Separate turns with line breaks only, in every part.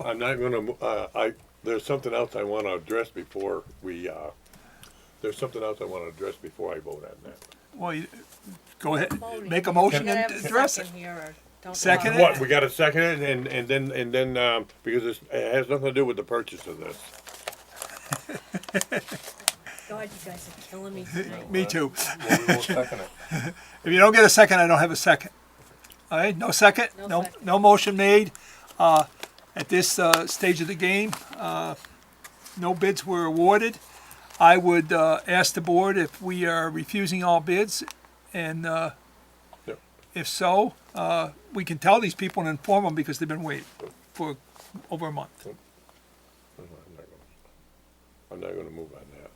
I'm not gonna, uh, I, there's something else I wanna address before we, uh, there's something else I wanna address before I vote on that.
Well, you- go ahead, make a motion
Gotta have
and
a
address it.
second here or don't
Second
vote.
it?
What, we gotta second it and, and then, and then, um, because it's, it has nothing to do with the purchase of this.
God, you guys are killing me tonight.
Me too.
Well, we won't second it.
If you don't get a second, I don't have a second. All right, no second,
No
no,
second.
no motion made. Uh, At this uh, stage of the game, uh, no bids were awarded. I would uh, ask the board if we are refusing all bids, and uh,
Yep.
if so, uh, we can tell these people and inform them because they've been waiting for over a month.
I'm not gonna- I'm not gonna move on that.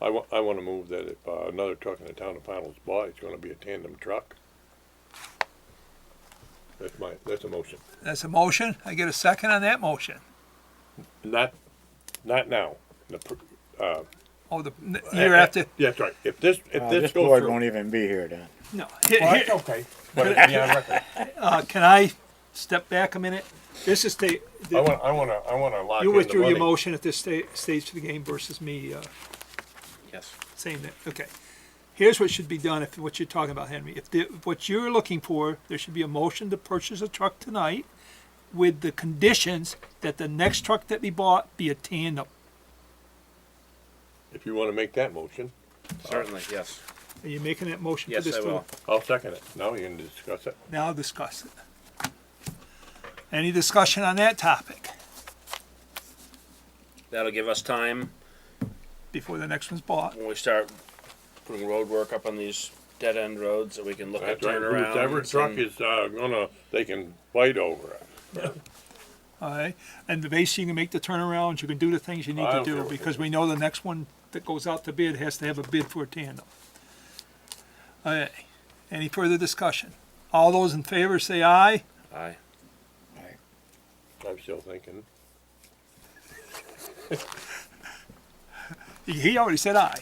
Uh, I wa- I wanna move that if, uh, another truck in the town of Pownell's bought, it's gonna be a tandem truck. That's my, that's a motion.
That's a motion. I get a second on that motion.
Not, not now. The pr-
Oh, the n- year after,
Eh, Yeah, that's right. If this, if
Uh,
this
this
goes
board
through.
won't even be here then.
no. Here- here-
okay. But it'd be on record.
Uh, can I step back a minute? This is the,
I want, I want to, I want to lock in
you
the
withdrew your
money.
motion at this sta- stage of the game versus me, uh,
Yes.
saying that, okay. Here's what should be done, if, what you're talking about, Henry. If, the- what you're looking for, there should be a motion to purchase a truck tonight with the conditions that the next truck that be bought be a tandem.
If you want to make that motion,
Certainly, yes.
Are you making that motion for
Yes,
this?
I
to-
will.
I'll second it. Now we can discuss it.
Now discuss it. Any discussion on that topic
That'll give us time
before the next one's bought?
when we start putting road work up on these dead end roads that we can look at
That's right.
turnarounds.
Whoever truck
and-
is, uh, gonna, they can fight over it.
All right, and the base, you can make the turnarounds, you can do the things you need
I
to
don't care
do,
what they
because we know the next one that goes out to bid has to have a bid for a tandem. All right, any further discussion? All those in favor say aye.
Aye.
I'm still thinking.
He- He already said aye.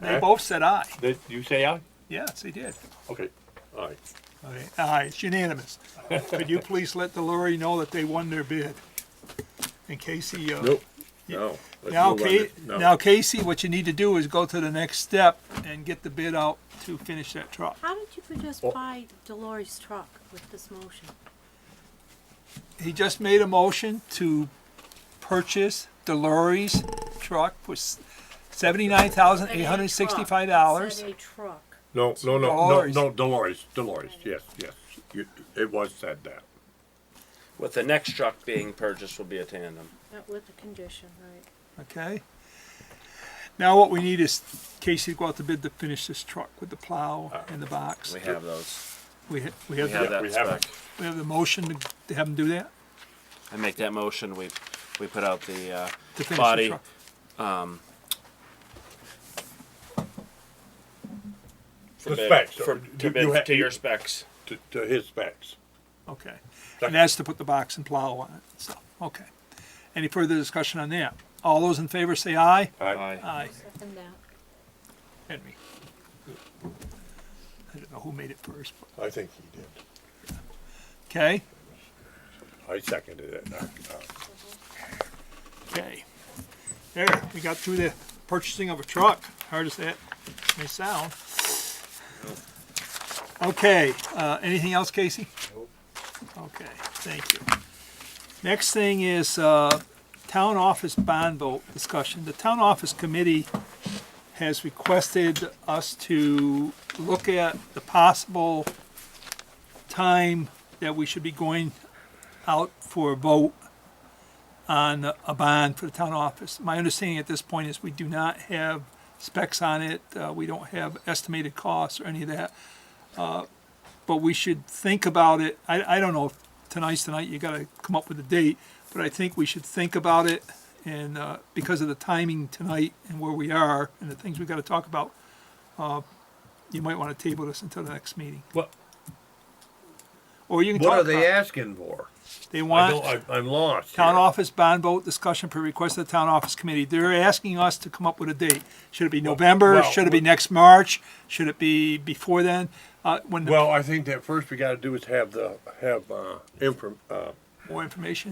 They both said aye.
Did you say aye?
Yes, he did.
Okay, aye.
All right, aye, it's unanimous. Could you please let the lorry know that they won their bid? In case he, uh,
Nope. No. Let's
Now,
move on
Ca-
to- no.
now Casey, what you need to do is go to the next step and get the bid out to finish that truck.
How did you could just buy Delory's truck with this motion?
he just made a motion to purchase Delory's truck for seventy-nine thousand eight hundred sixty-five dollars.
Said a truck.
No, no, no, no,
Dolores.
no, Dolores, Dolores, yes, yes. You, it was said that.
With the next truck being purchased will be a tandem.
Not with the condition, right?
Okay. Now what we need is Casey to go out to bid to finish this truck with the plow and the box.
Uh, We have those.
We, ha- we
We
have,
have
the-
that
we have
spec.
it.
we have the motion to- to have him do that,
I make that motion. We we put out the uh,
to finish the
body.
truck.
For
The
bid-
specs. uh,
For,
You-
to,
you
bid-
ha-
to your specs.
To, to his specs.
Okay.
Second.
And that's to put the box and plow on it, so, okay. Any further discussion on that? All those in favor say aye.
Aye.
Aye.
Second that.
Henry. I don't know who made it first, but-
I think he did.
okay?
I seconded it. Uh,
Okay. There, we got through the purchasing of a truck, hard as that may sound. Okay, uh, anything else, Casey? Okay, thank you. Next thing is, uh, town office bond vote discussion. The town office committee has requested us to look at the possible time that we should be going out for a vote on a bond for the town office. My understanding at this point is we do not have specs on it, uh, we don't have estimated costs or any of that. Uh, But we should think about it, I, I don't know, if tonight's tonight, you gotta come up with a date, but I think we should think about it. And, uh, because of the timing tonight and where we are and the things we gotta talk about, uh, you might wanna table this until the next meeting.
What,
Or you can
what
talk
are
about,
they
it.
asking for?
they
I
want.
don't, I- I'm lost.
Town
here.
office bond vote discussion per request of the town office committee. They're asking us to come up with a date. Should it be November?
well,
Should it be
well-
next March? Should it be before then? Uh, when, the-
Well, I think that first we gotta do is have the, have, uh, inform, uh,
more information